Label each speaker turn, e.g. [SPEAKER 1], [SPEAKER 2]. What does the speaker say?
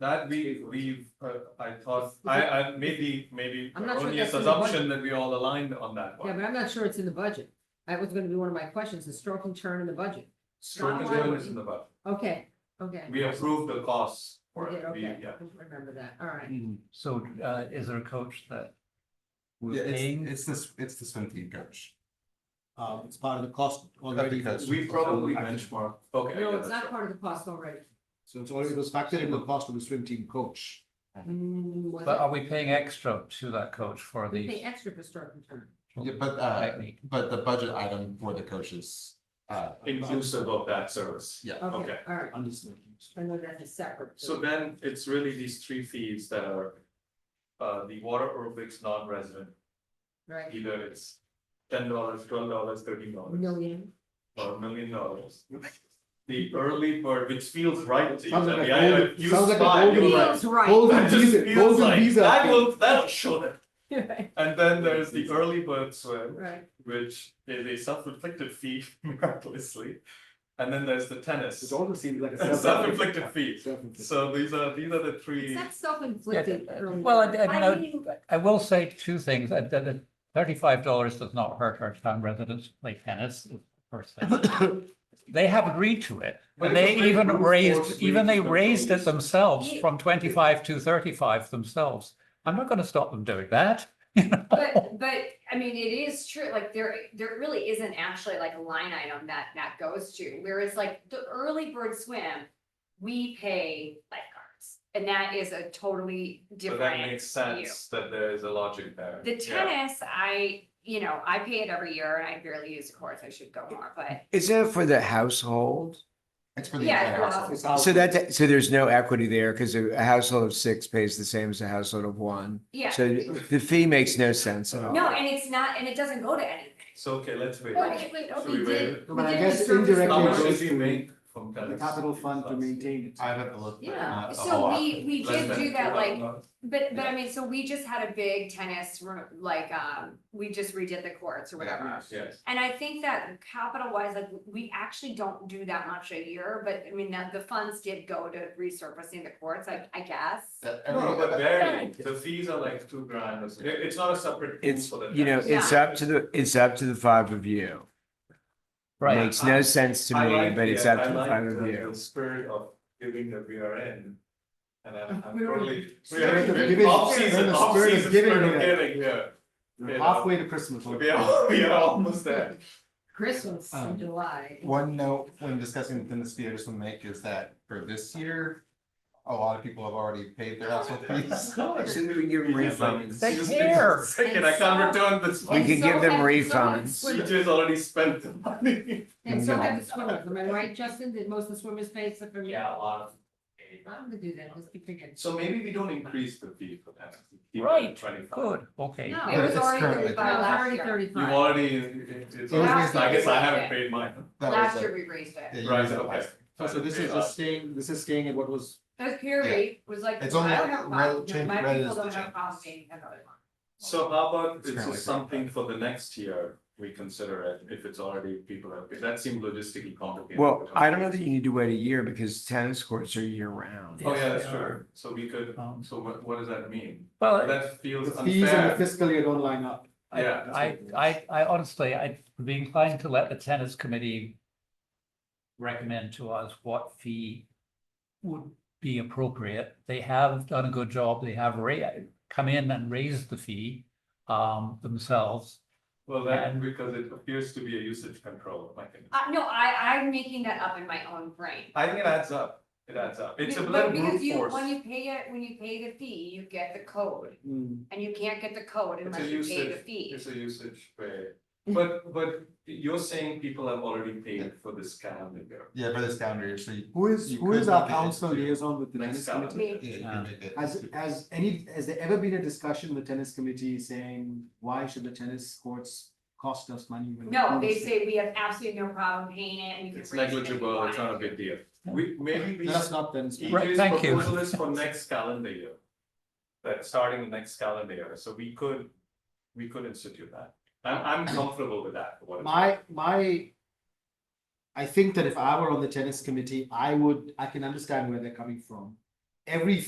[SPEAKER 1] That we, we've, uh, I thought, I, I, maybe, maybe
[SPEAKER 2] I'm not sure
[SPEAKER 1] erroneous
[SPEAKER 2] that's in the budget.
[SPEAKER 1] assumption that we all aligned on that
[SPEAKER 2] Yeah,
[SPEAKER 1] one.
[SPEAKER 2] but I'm not sure it's in the budget. That was gonna be one of my questions, the stroke and turn in the budget.
[SPEAKER 1] Stroke and turn is in the budget.
[SPEAKER 2] Okay, okay.
[SPEAKER 1] We approved the costs for
[SPEAKER 2] We did,
[SPEAKER 1] it, we,
[SPEAKER 2] okay.
[SPEAKER 1] yeah.
[SPEAKER 2] I Remember that, all right.
[SPEAKER 3] Mm, So uh, is there a coach that
[SPEAKER 4] Yeah,
[SPEAKER 3] we're paying?
[SPEAKER 4] it's, it's this, it's the swim team coach.
[SPEAKER 5] Uh, it's part of the cost already,
[SPEAKER 4] Because-
[SPEAKER 1] We probably
[SPEAKER 4] Okay.
[SPEAKER 1] benchmark, okay. yeah,
[SPEAKER 2] No, it's
[SPEAKER 1] that's
[SPEAKER 2] not
[SPEAKER 1] right.
[SPEAKER 2] part of the cost already.
[SPEAKER 5] so it's already, it was factored in the cost of the swim team coach.
[SPEAKER 2] Mm, was
[SPEAKER 3] But
[SPEAKER 2] it?
[SPEAKER 3] are we paying extra to that coach for
[SPEAKER 2] We pay
[SPEAKER 3] the
[SPEAKER 2] extra for stroke and turn.
[SPEAKER 4] Yeah, but, uh,
[SPEAKER 3] technique?
[SPEAKER 4] but the budget item for the coaches, uh,
[SPEAKER 1] Inclusive of that service.
[SPEAKER 4] yeah.
[SPEAKER 2] Okay,
[SPEAKER 1] Okay.
[SPEAKER 2] all right.
[SPEAKER 5] Understood.
[SPEAKER 2] I know that is separate.
[SPEAKER 1] So then it's really these three fees that are. Uh, the water aerobics non-resident,
[SPEAKER 2] Right,
[SPEAKER 1] either it's ten dollars, twelve dollars, thirteen dollars.
[SPEAKER 2] million.
[SPEAKER 1] Or a million dollars. The early bird, which feels right to you,
[SPEAKER 5] Sounds like
[SPEAKER 1] Debbie,
[SPEAKER 5] a
[SPEAKER 1] I- I-
[SPEAKER 5] golden-
[SPEAKER 1] you
[SPEAKER 5] sounds like a
[SPEAKER 1] smile,
[SPEAKER 5] golden-
[SPEAKER 1] you're
[SPEAKER 2] Feels
[SPEAKER 1] like,
[SPEAKER 2] right.
[SPEAKER 5] Golden
[SPEAKER 1] That just
[SPEAKER 5] visa,
[SPEAKER 1] feels
[SPEAKER 5] golden
[SPEAKER 1] like,
[SPEAKER 5] visa.
[SPEAKER 1] that will, that'll show them.
[SPEAKER 2] Right,
[SPEAKER 1] And then there's the early bird swim,
[SPEAKER 2] right.
[SPEAKER 1] which is a self-inflicted fee miraculously. And then there's the tennis,
[SPEAKER 5] almost seems like
[SPEAKER 1] a self-inflicted fee. So these are, these are the three.
[SPEAKER 2] It's not
[SPEAKER 3] Yeah,
[SPEAKER 2] self-inflicted.
[SPEAKER 3] uh,
[SPEAKER 2] early
[SPEAKER 3] Well, I,
[SPEAKER 2] bird.
[SPEAKER 3] I mean, I- I will say two things. I- that- that Thirty-five dollars does not hurt our town residents to play tennis, is the first thing. They have agreed to it.
[SPEAKER 1] But
[SPEAKER 3] And they
[SPEAKER 1] it's a
[SPEAKER 3] even
[SPEAKER 1] brute force
[SPEAKER 3] raised, even they
[SPEAKER 1] reason.
[SPEAKER 3] raised it themselves
[SPEAKER 2] Yeah.
[SPEAKER 3] from twenty-five to thirty-five themselves. I'm not gonna stop them doing that.
[SPEAKER 6] But, but, I mean, it is true, like, there, there really isn't actually like a line item that, that goes to, whereas like the early bird swim, we pay lifeguards, and that is a totally
[SPEAKER 1] But
[SPEAKER 6] different.
[SPEAKER 1] that makes
[SPEAKER 6] view.
[SPEAKER 1] sense that there is a logic there.
[SPEAKER 6] The
[SPEAKER 1] Yeah.
[SPEAKER 6] tennis, I, you know, I pay it every year, and I barely use the courts, I should go more, but
[SPEAKER 7] Is that for the household?
[SPEAKER 4] It's for the
[SPEAKER 6] Yeah,
[SPEAKER 4] entire
[SPEAKER 6] well,
[SPEAKER 4] household.
[SPEAKER 7] So that, so there's no equity there because a a household of six pays the same as a household of one.
[SPEAKER 6] yeah.
[SPEAKER 7] So the fee makes no sense at all.
[SPEAKER 6] No, and it's not, and it doesn't go to anything.
[SPEAKER 1] So, okay, let's wait.
[SPEAKER 6] Well, if we-
[SPEAKER 1] Should
[SPEAKER 6] we
[SPEAKER 1] we
[SPEAKER 6] did-
[SPEAKER 1] wait?
[SPEAKER 6] we
[SPEAKER 5] But I
[SPEAKER 6] did
[SPEAKER 5] guess
[SPEAKER 6] the service
[SPEAKER 5] indirectly
[SPEAKER 1] How
[SPEAKER 5] it
[SPEAKER 1] much
[SPEAKER 6] level.
[SPEAKER 5] goes
[SPEAKER 1] did we
[SPEAKER 5] to
[SPEAKER 1] make from
[SPEAKER 5] The
[SPEAKER 1] tennis?
[SPEAKER 5] capital fund to
[SPEAKER 1] Less-
[SPEAKER 5] maintain it.
[SPEAKER 4] I'd have to look. but
[SPEAKER 6] Yeah,
[SPEAKER 4] not a
[SPEAKER 6] so
[SPEAKER 4] whole lot.
[SPEAKER 6] we, we
[SPEAKER 1] less
[SPEAKER 6] did
[SPEAKER 1] than
[SPEAKER 6] do that, like,
[SPEAKER 1] $12.
[SPEAKER 6] But, but I mean, so we just had a big tennis room, like, um, we just redid the courts or whatever.
[SPEAKER 1] Yes,
[SPEAKER 6] And I think that capital wise, like, we actually don't do that much a year, but I mean, that the funds did go to resurfacing the courts, I, I guess.
[SPEAKER 4] That every-
[SPEAKER 1] no, but
[SPEAKER 4] that-
[SPEAKER 1] barely, the fees are like two grand, or something. It- it's not a separate pool
[SPEAKER 7] It's,
[SPEAKER 1] for the.
[SPEAKER 7] you know,
[SPEAKER 1] tennis.
[SPEAKER 7] it's up to the, it's up to the five of you.
[SPEAKER 3] Right.
[SPEAKER 7] Makes no sense to
[SPEAKER 1] I
[SPEAKER 7] me,
[SPEAKER 1] like
[SPEAKER 7] but
[SPEAKER 1] the-
[SPEAKER 7] it's up
[SPEAKER 1] I
[SPEAKER 7] to the
[SPEAKER 1] like
[SPEAKER 7] five of
[SPEAKER 1] the-
[SPEAKER 7] you.
[SPEAKER 1] The spirit of giving that we are in. And I'm, I'm
[SPEAKER 2] We're-
[SPEAKER 1] totally.
[SPEAKER 2] Spirit of
[SPEAKER 5] giving. We're in
[SPEAKER 1] Off-season,
[SPEAKER 5] the
[SPEAKER 1] off-season,
[SPEAKER 5] spirit of giving
[SPEAKER 1] spirit of
[SPEAKER 5] here.
[SPEAKER 1] giving, yeah.
[SPEAKER 5] We're Halfway to Christmas.
[SPEAKER 1] We are, we are almost there.
[SPEAKER 2] Christmas in
[SPEAKER 4] Um,
[SPEAKER 2] July.
[SPEAKER 4] One note when discussing the tennis fee, I just want to make is that for this year, a lot of people have already paid their household fees.
[SPEAKER 7] we can give them refunds.
[SPEAKER 3] They
[SPEAKER 1] Just-
[SPEAKER 3] care.
[SPEAKER 1] Second, I can't return this.
[SPEAKER 7] We
[SPEAKER 1] one.
[SPEAKER 6] And
[SPEAKER 7] can
[SPEAKER 6] so
[SPEAKER 7] give them
[SPEAKER 6] have- so have
[SPEAKER 7] refunds.
[SPEAKER 1] She
[SPEAKER 6] swimmers.
[SPEAKER 1] just already spent the money.
[SPEAKER 2] And so
[SPEAKER 7] No.
[SPEAKER 2] have the swimmers, am I right, Justin, that most of the swimmers pay except for me?
[SPEAKER 1] a lot of.
[SPEAKER 2] I'm gonna do that, let's keep thinking.
[SPEAKER 1] So maybe we don't increase the fee for that. Keep it at
[SPEAKER 3] Right,
[SPEAKER 1] 25.
[SPEAKER 3] Good, okay.
[SPEAKER 2] No,
[SPEAKER 6] It
[SPEAKER 2] it
[SPEAKER 6] was
[SPEAKER 4] it's
[SPEAKER 6] already
[SPEAKER 4] currently
[SPEAKER 6] by
[SPEAKER 2] was
[SPEAKER 6] last
[SPEAKER 2] already
[SPEAKER 6] year.
[SPEAKER 1] You've
[SPEAKER 2] thirty-five.
[SPEAKER 1] already, it- it's,
[SPEAKER 4] The only reason
[SPEAKER 1] I
[SPEAKER 6] I
[SPEAKER 1] guess I
[SPEAKER 6] did
[SPEAKER 1] haven't
[SPEAKER 6] it-
[SPEAKER 1] paid mine.
[SPEAKER 4] That was
[SPEAKER 6] Last
[SPEAKER 4] a-
[SPEAKER 6] year we raised it.
[SPEAKER 4] yeah, you
[SPEAKER 1] Right,
[SPEAKER 4] guys have
[SPEAKER 1] okay.
[SPEAKER 4] last-
[SPEAKER 5] So so this is just staying, this is staying at what was,
[SPEAKER 6] But Perry was like, I
[SPEAKER 4] It's only
[SPEAKER 6] don't have, a
[SPEAKER 4] rel-
[SPEAKER 6] problem.
[SPEAKER 4] change-
[SPEAKER 6] my
[SPEAKER 4] rel-
[SPEAKER 6] people
[SPEAKER 4] is the
[SPEAKER 6] don't have a
[SPEAKER 4] change.
[SPEAKER 6] problem being another one.
[SPEAKER 1] So how about
[SPEAKER 4] It's
[SPEAKER 1] it's
[SPEAKER 4] currently
[SPEAKER 1] just something for the next year, we consider it, if it's already people have, paid. that seemed logistically complicated.
[SPEAKER 7] Well, I don't know that you need to wait a year because tennis courts are year round.
[SPEAKER 1] Oh, yeah, that's
[SPEAKER 3] Yes, they
[SPEAKER 1] true, so we could,
[SPEAKER 3] Um,
[SPEAKER 1] so what, what does that mean?
[SPEAKER 3] Well,
[SPEAKER 1] That
[SPEAKER 5] the
[SPEAKER 1] feels
[SPEAKER 5] fees and the
[SPEAKER 1] unfair,
[SPEAKER 5] fiscal year don't line up.
[SPEAKER 3] I,
[SPEAKER 1] yeah.
[SPEAKER 3] I, I, I honestly, I'd be inclined to let the tennis committee recommend to us what fee would be appropriate. They have done a good job. They have ra- come in and raised the fee, um, themselves.
[SPEAKER 1] Well, that,
[SPEAKER 3] And-
[SPEAKER 1] because it appears to be a usage control mechanism.
[SPEAKER 6] Uh, no, I, I'm making that up in my own brain.
[SPEAKER 1] I think it adds up, it adds up, it's a
[SPEAKER 6] But-
[SPEAKER 1] little
[SPEAKER 6] but because
[SPEAKER 1] brute
[SPEAKER 6] you-
[SPEAKER 1] force.
[SPEAKER 6] When you pay it, when you pay the fee, you get the code,
[SPEAKER 5] Hmm.
[SPEAKER 6] and you can't get the code
[SPEAKER 1] It's a
[SPEAKER 6] unless you pay the
[SPEAKER 1] usage-
[SPEAKER 6] fee.
[SPEAKER 1] It's a usage way, but, but you're saying people have already paid for this calendar year.
[SPEAKER 4] Yeah, for this calendar year, so you.
[SPEAKER 5] Who is,
[SPEAKER 4] You
[SPEAKER 5] who is
[SPEAKER 4] could
[SPEAKER 5] our
[SPEAKER 4] make it
[SPEAKER 5] council
[SPEAKER 4] into-
[SPEAKER 5] liaison with the
[SPEAKER 1] Next
[SPEAKER 5] tennis
[SPEAKER 1] calendar.
[SPEAKER 5] committee?
[SPEAKER 4] yeah, you can make it
[SPEAKER 5] Has,
[SPEAKER 4] into-
[SPEAKER 5] has any, has there ever been a discussion in the tennis committee saying, why should the tennis courts cost us money? when we
[SPEAKER 6] No,
[SPEAKER 5] own
[SPEAKER 6] they
[SPEAKER 5] this thing?"
[SPEAKER 6] say we have absolutely no problem paying it, and you can.
[SPEAKER 1] It's
[SPEAKER 6] raise it if you
[SPEAKER 1] negligible, it's
[SPEAKER 6] want.
[SPEAKER 1] not a big deal. We, maybe we,
[SPEAKER 5] That's not tennis.
[SPEAKER 3] Right,
[SPEAKER 1] EJ's
[SPEAKER 3] thank you.
[SPEAKER 1] proposal is for next calendar year. That starting the next calendar year, so we could, we could institute that. I'm, I'm comfortable with that. for what it's-
[SPEAKER 5] My, my. I think that if I were on the tennis committee, I would, I can understand where they're coming from. Every